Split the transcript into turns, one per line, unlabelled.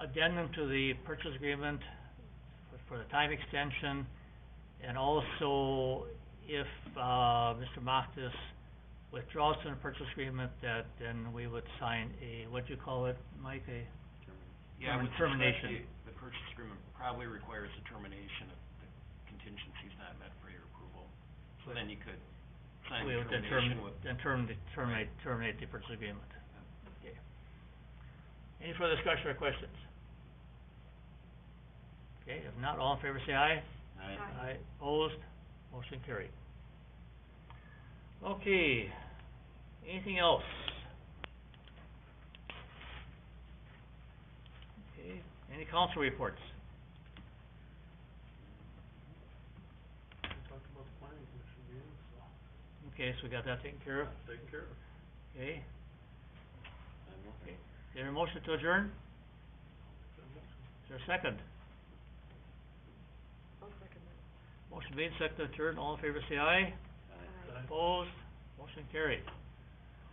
addendum to the purchase agreement for the time extension. And also, if, uh, Mr. Moftis withdraws from the purchase agreement, that then we would sign a, what do you call it, Mike, a,
Yeah,
Term-
with respect
termination.
to- The purchase agreement probably requires a termination if the contingency's not met for your approval. So then you could sign
we
the
would then
termination
term,
with,
then term, terminate, terminate the purchase agreement. Okay. Any further discussion or questions? Okay, if not, all in favor say aye.
I,
Aye, opposed, motion carried. Okay, anything else? Okay, any council reports?
talked about the planning commission meeting, so
Okay, so we got that taken care of,
taken care of.
okay,
I'm okay.
is there a motion to adjourn? Is there a second? Motion made, second to adjourn, all in favor say aye.
Aye.
Opposed, motion carried.